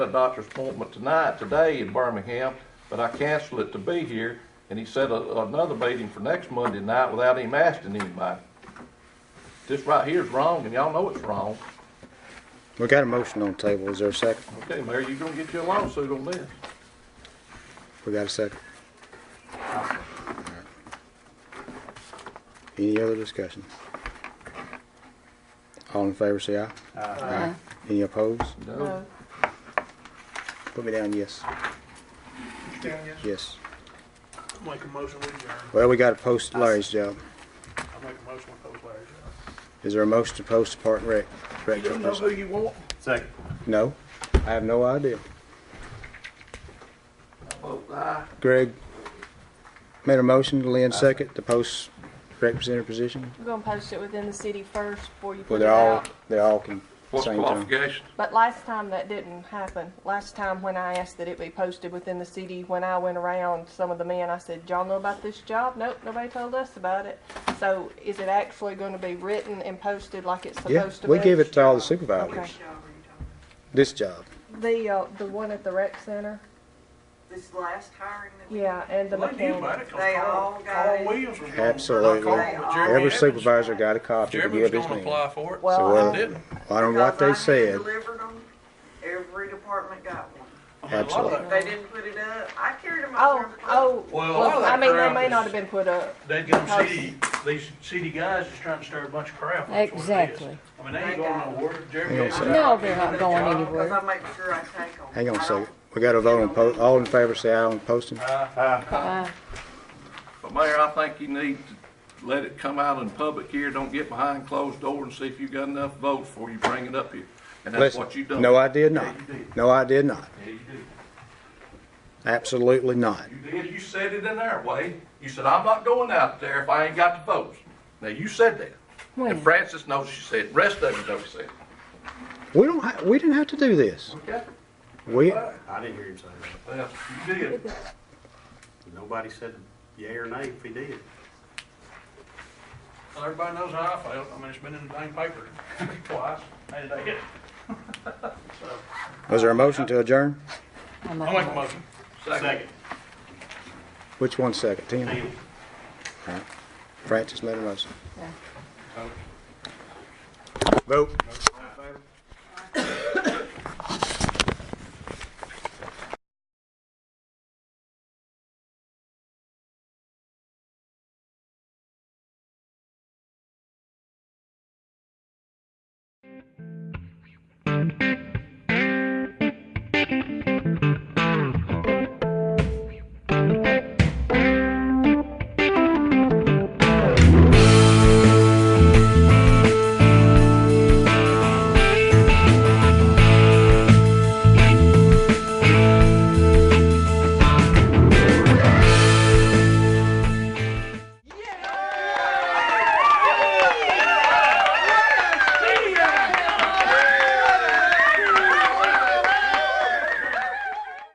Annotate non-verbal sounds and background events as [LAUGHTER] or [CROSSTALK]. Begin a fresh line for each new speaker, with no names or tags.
a doctor's appointment tonight, today in Birmingham, but I canceled it to be here, and he set a- another meeting for next Monday night without him asking anybody. This right here is wrong, and y'all know it's wrong.
We got a motion on the table. Is there a second?
Okay, Mayor, you gonna get your lawsuit on this.
We got a second. Any other discussion? All in favor, say aye. Aye. Any opposed?
No.
Put me down, yes. Yes.
Make a motion with you.
Well, we gotta post Larry's job.
I make a motion with those letters.
Is there a motion to post the Park and Rec?
You
rec
don't know who you want.
Second.
No, I have no idea.
Oh, aye.
Greg made a motion, Lynn second, to post representative position.
We're gonna post it within the city first before you
Well,
put it
they're all,
out.
they're all con-
What's
same time.
qualifications?
But last time that didn't happen. Last time when I asked that it be posted within the city, when I went around, some of the men, I said, y'all know about this job? Nope, nobody told us about it. So is it actually gonna be written and posted like it's
Yeah,
supposed to be?
we give it to all the supervisors,
Okay.
this job.
The, uh, the one at the rec center,
This last hiring that we
yeah, and the
Well, you might
mechanic.
have come
They
Carl-
all got
Carl
it.
Williams was gonna-
Absolutely.
Carl- Jeremy
Every
Evans-
supervisor got a copy to
Jeremy
give
was
his
gonna
name.
apply for it.
So
Well,
well,
I-
didn't.
I don't know what they
Because I had
said.
Delivered them, every department got one.
I mean, a lot of
If
that-
They didn't put it up, I carried them out
oh,
there. and put them
oh,
Well, a lot of
well, I
that
mean, they
crap
may
is-
not have been put up.
They get them city, these city guys is trying to stir a bunch of crap. that's what it is.
Exactly.
I mean, they ain't going nowhere. Jeremy
Hang on a
Evans-
second.
No, they're not
in
going
the job,
oh.
anywhere.
Cause I make sure I take them.
Hang on a second. We got a vote on po, all in favor, say aye on posting.
Aye.
But Mayor, I think you need to let it come out in public here. Don't get behind closed door and see if you got enough votes before you bring it up here. And that's
Listen,
what you done.
no, I did not.
Yeah, you did.
No, I did not.
Yeah, you do.
Absolutely not.
You did, you said it in there, Wade. You said, I'm not going out there if I ain't got the votes. Now, you said that.
When?
And Francis knows she said, it. rest of you know she said. it.
We don't, ha- we didn't have to do this.
Okay?
We,
I didn't hear him say that.
Well, you did.
Nobody said yea or nay if he did.
Well, everybody knows how I felt. I mean, it's been in the dang paper [LAUGHS] twice. Hey, did I hit?
was there a motion to adjourn?
I'm
I'll
not-
make a motion.
Second.
Which one second? Tim?
Tim,
Francis made a motion.
Yeah.
Vote.